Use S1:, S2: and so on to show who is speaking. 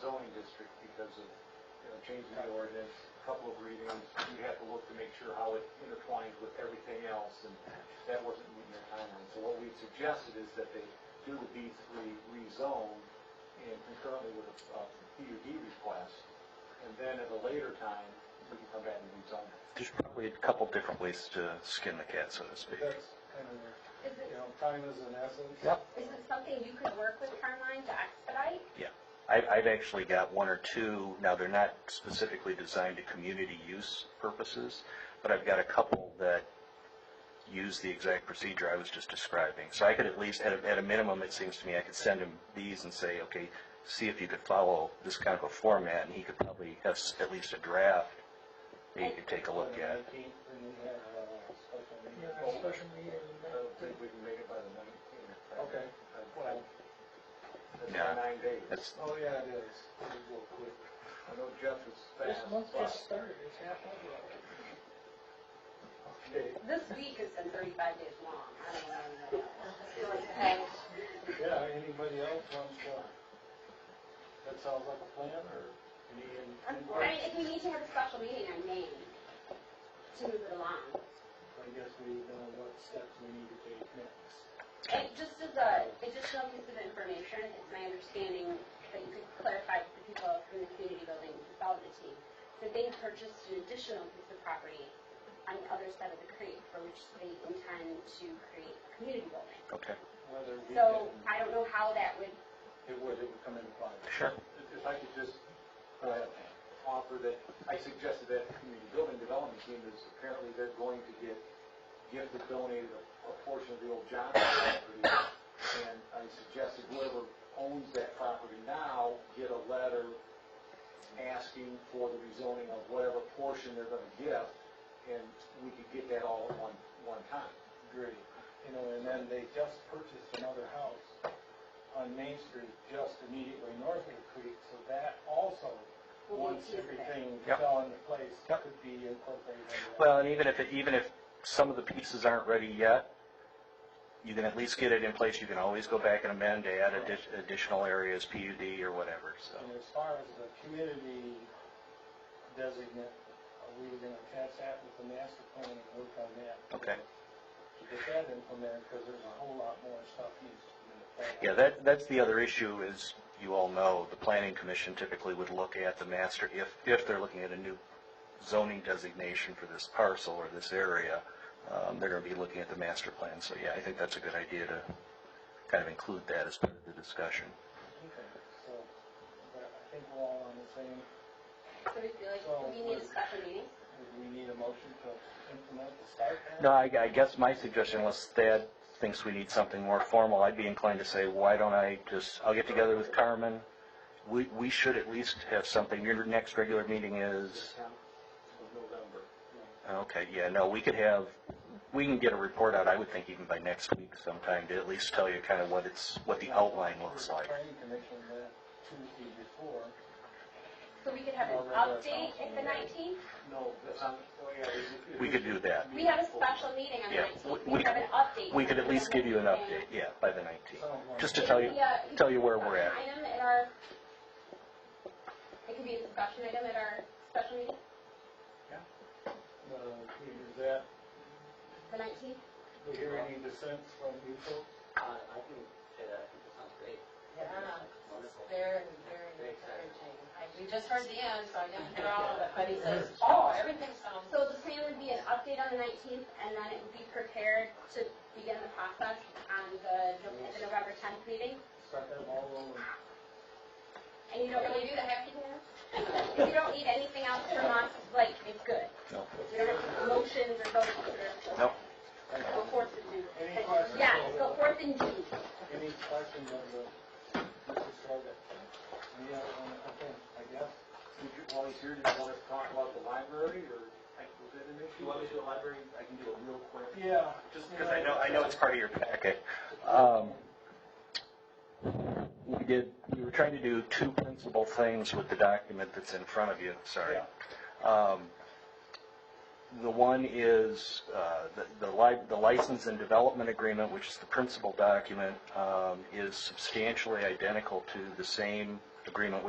S1: zoning district because of, you know, changing the ordinance, a couple of readings, you have to look to make sure how it intertwines with everything else, and that wasn't meeting their timeline. So what we suggested is that they do the B three rezone and concurrently with a uh, PUD request, and then at a later time, we can come back and rezone it.
S2: There's probably a couple different ways to skin the cat, so to speak.
S3: That's kind of,
S4: Is it,
S3: you know, time is an essence.
S2: Yep.
S4: is it something you could work with Carmine to expedite?
S2: I, I've actually got one or two, now they're not specifically designed to community use purposes, but I've got a couple that use the exact procedure I was just describing. So I could at least, at a, at a minimum, it seems to me, I could send him these and say, okay, see if you could follow this kind of a format, and he could probably have s- at least a draft that he could take a look at.
S3: Nineteenth, and we have uh, special meeting.
S1: Yeah,
S3: Oh,
S1: a
S3: special meeting.
S1: I don't think we can make it by the nineteenth.
S3: Okay.
S1: Well, that's
S2: Yeah.
S1: nine days.
S2: That's,
S3: Oh, yeah, it is. It'll go quick.
S1: I know Jeff is fast.
S3: started, it's half over.
S1: Okay.
S4: This week has been thirty-five days long. I don't know anybody else. I feel like it's been-
S3: Yeah, anybody else wants to? That sounds like a plan, or any,
S4: I'm-
S3: any-
S4: I mean, if we need to have a special meeting, I may, to move it along.
S3: I guess we know what steps we need to take next.
S4: It just is a additional piece of information, it's my understanding that you could clarify to the people from the community building development team that they purchased an additional piece of property on the other side of the creek for which they intend to create a community building.
S2: okay,
S3: Whether we
S4: So
S3: can,
S4: I don't know how that would,
S3: it would, it would come into play.
S2: sure.
S1: If I could just uh, offer that, I suggested that the community building development team is apparently they're going to get, gifted donated a a portion of the old Johnson property. And I suggested whoever owns that property now get a letter asking for the rezoning of whatever portion they're going to give. And we could get that all at one, one time.
S3: Agree. You know, and then they just purchased another house on Main Street, just immediately north of the creek, so that also,
S4: Well,
S3: once
S4: it's different.
S3: everything
S2: Yep.
S3: fell into place,
S2: Yep.
S3: could be incorporated. into that.
S2: Well, and even if, it- even if some of the pieces aren't ready yet, you can at least get it in place, you can always go back and amend, to add addi- additional areas, PUD or whatever, so.
S3: And as far as the community designate, are we gonna attach that with the master plan and work on that?
S2: Okay.
S3: To get that implemented, because there's a whole lot more stuff needs to be in the plan.
S2: Yeah, that, that's the other issue is, you all know, the planning commission typically would look at the master, if, if they're looking at a new zoning designation for this parcel or this area, um, they're gonna be looking at the master plan, so yeah, I think that's a good idea to kind of include that as part of the discussion.
S3: Okay, so, but I think we're all on the same,
S4: so we feel like, do we need a special meeting?
S3: we need a motion to implement the site plan?
S2: No, I, I guess my suggestion, unless Thad thinks we need something more formal, I'd be inclined to say, why don't I just, I'll get together with Carmen. We, we should at least have something, your next regular meeting is,
S1: Of November.
S2: okay, yeah, no, we could have, we can get a report out, I would think even by next week sometime, to at least tell you kind of what it's, what the outline looks like.
S3: Planning commission that Tuesday before,
S4: So we could have an
S3: Or regular
S4: update
S3: council
S4: at the
S3: meeting.
S4: nineteenth?
S1: No, that's not, oh, yeah.
S2: We could do that.
S4: We have a special meeting on the
S2: Yeah,
S4: nineteenth,
S2: we-
S4: we could have an update.
S2: We could at least give you an
S4: Okay.
S2: update, yeah, by the 19th,
S3: someone.
S2: just to tell you, tell you where we're at.
S4: It could be a- it could be an item at our, it could be a discussion item at our special meeting,
S3: Uh, is that,
S4: the 19th.
S3: we hear any dissent from you folks?
S5: Uh, I can say that, it sounds great.
S6: Yeah,
S5: Wonderful.
S6: very, very encouraging. I- We just heard the end, so I didn't hear all of it, but he says, oh, everything sounds,
S4: So the plan would be an update on the 19th, and then it would be prepared to begin the process on the at the November 10th meeting.
S3: Start that all over.
S4: And you don't really do the happy dance? If you don't need anything else from us, like, it's good.
S2: No.
S4: You don't have to motions or votes or...
S2: No.
S4: Go forth and do.
S3: Any questions?
S4: Yeah, go forth and do.
S3: Any questions of the, Mr. Sargent? Any other one, okay, I guess.
S1: Did you, while he's here, do you want us to talk about the library, or like, was that an
S5: You
S1: issue?
S5: want me to do a library? I can do a real quick.
S3: Yeah.
S5: Just
S2: Because I know, I know it's part of your packet. Um, We did, we were trying to do two principal things with the document that's in front of you, sorry. Um, The one is uh, the- the li- the license and development agreement, which is the principal document, um, is substantially identical to the same agreement we